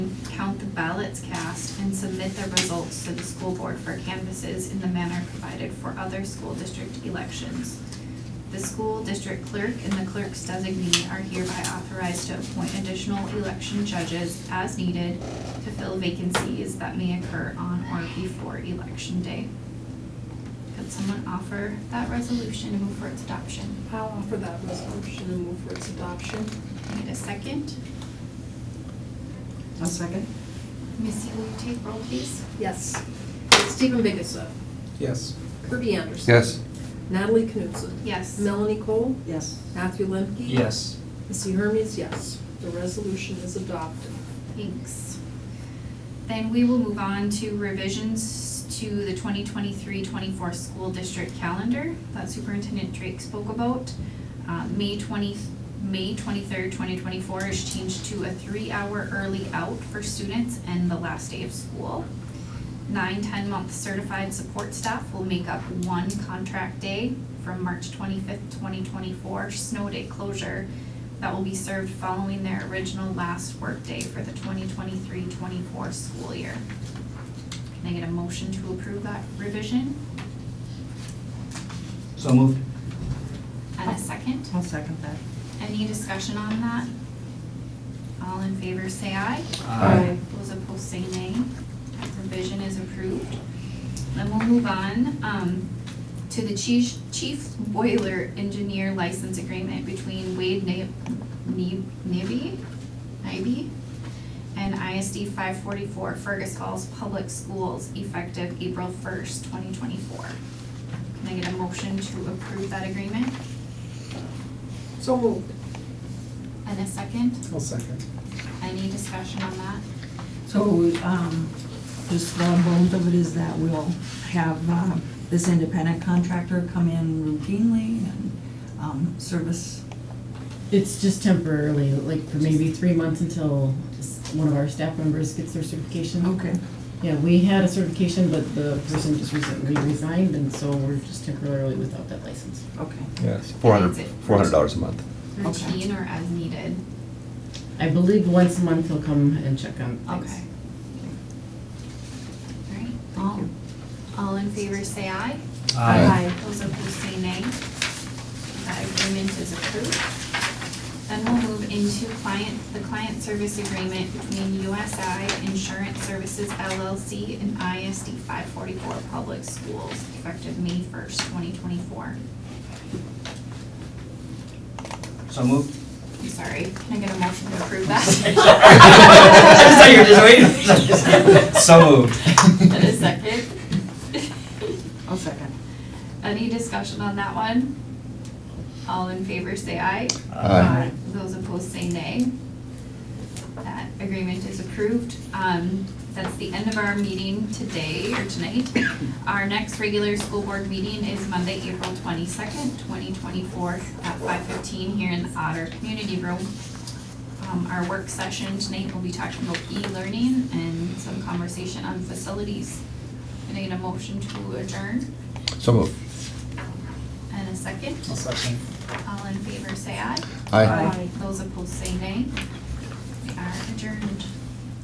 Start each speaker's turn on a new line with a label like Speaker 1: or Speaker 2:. Speaker 1: count the ballots cast and submit the results to the school board for canvasses in the manner provided for other school district elections. The school district clerk and the clerk's designee are hereby authorized to appoint additional election judges as needed to fill vacancies that may occur on or before election day. Could someone offer that resolution and move for its adoption?
Speaker 2: I'll offer that resolution and move for its adoption.
Speaker 1: Need a second?
Speaker 3: I'll second.
Speaker 1: Missy, will you take roll please?
Speaker 2: Yes. Stephen Biggessa.
Speaker 4: Yes.
Speaker 2: Kirby Anderson.
Speaker 5: Yes.
Speaker 2: Natalie Knutson.
Speaker 1: Yes.
Speaker 2: Melanie Cole.
Speaker 3: Yes.
Speaker 2: Matthew Lemke.
Speaker 4: Yes.
Speaker 2: Missy Hermes, yes. The resolution is adopted.
Speaker 1: Thanks. Then we will move on to revisions to the 2023-24 school district calendar that Superintendent Drake spoke about. Uh, May twenty, May twenty-third, twenty twenty-four is changed to a three-hour early out for students and the last day of school. Nine 10 ten-month certified support staff will make up one contract day from March twenty-fifth, twenty twenty-four, snow day closure that will be served following their original last workday for the 2023-24 school year. Can I get a motion to approve that revision
Speaker 4: So moved.
Speaker 1: and a second?
Speaker 3: I'll second that.
Speaker 1: Any discussion on that? All in favor, say aye.
Speaker 3: Aye.
Speaker 1: Those opposed say nay. That provision is approved. Then we'll move on um, to the chief chief boiler engineer license agreement between Wade Na- Ne- Nibby, Nibby and ISD 544 Fergus Falls Public Schools effective April 1st, 2024. Can I get a motion to approve that agreement?
Speaker 2: So moved.
Speaker 1: And a second?
Speaker 4: I'll second.
Speaker 1: Any discussion on that?
Speaker 3: So, um, just the bones of it is that we'll have, um, this independent contractor come in routinely and, um, service.
Speaker 6: It's just temporarily, like for maybe three months until s- one of our staff members gets their certification.
Speaker 3: Okay.
Speaker 6: Yeah, we had a certification, but the person just recently resigned, and so we're just temporarily without that license.
Speaker 3: Okay.
Speaker 5: Yes. Four hundred,
Speaker 1: Is it-
Speaker 5: four hundred dollars a month.
Speaker 3: Okay.
Speaker 1: Routine or as needed?
Speaker 6: I believe once a month he'll come and check on things.
Speaker 1: Okay. Alright, all, all in favor say aye.
Speaker 5: Aye.
Speaker 1: Those opposed say nay. That agreement is approved. Then we'll move into client, the client service agreement between USI Insurance Services LLC and ISD five forty-four Public Schools effective May first, twenty twenty-four.
Speaker 4: So moved.
Speaker 1: I'm sorry, can I get a motion to approve that?
Speaker 4: Sorry, you're just waiting. So
Speaker 1: And a
Speaker 4: moved.
Speaker 1: second?
Speaker 3: I'll second.
Speaker 1: Any discussion on that one? All in favor say aye.
Speaker 5: Aye.
Speaker 1: Those opposed say nay. That agreement is approved. Um, that's the end of our meeting today or tonight. Our next regular school board meeting is Monday, April twenty-second, twenty twenty-four at five fifteen here in the Otter Community Room. Um, our work session tonight will be talking about e-learning and some conversation on facilities. Can I get a motion to adjourn
Speaker 5: So moved.
Speaker 1: and a second?
Speaker 4: I'll second.
Speaker 1: All in favor, say aye.
Speaker 5: Aye.
Speaker 3: Aye.
Speaker 1: Those opposed, say nay. We are adjourned.